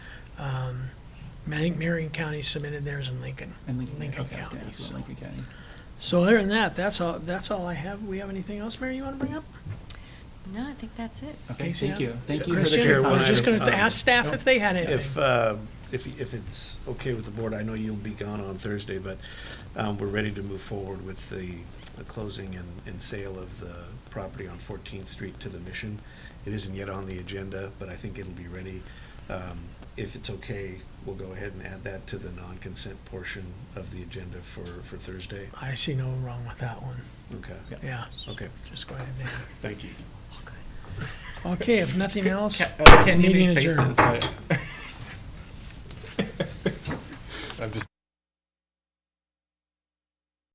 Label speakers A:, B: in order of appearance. A: Um, I think Marion County submitted theirs in Lincoln.
B: And Lincoln,
A: Lincoln
B: okay, I was gonna
A: County,
B: ask about
A: so.
B: Lincoln County.
A: So other than that, that's all, that's all I have. We have anything else, Mary, you want to bring up?
C: No, I think that's it.
B: Okay,
A: Casey,
B: thank
A: yeah.
B: you. Thank you for the
A: Christian,
B: great
D: Chair,
A: I was
D: one
A: just
D: item.
A: going to ask staff if they had
D: If,
A: anything.
D: uh, if, if it's okay with the board, I know you'll be gone on Thursday, but um, we're ready to move forward with the the closing and, and sale of the property on 14th Street to the Mission. It isn't yet on the agenda, but I think it'll be ready. Um, If it's okay, we'll go ahead and add that to the non-consent portion of the agenda for, for Thursday.
A: I see no wrong with that one.
D: Okay,
B: Yeah.
A: Yeah,
D: okay,
A: just go ahead. David.
D: thank you.
A: Okay, if nothing else,
B: Ca- uh, Ken, you
A: Meeting
B: made
A: adjourned.
B: faces, but.
E: I'm just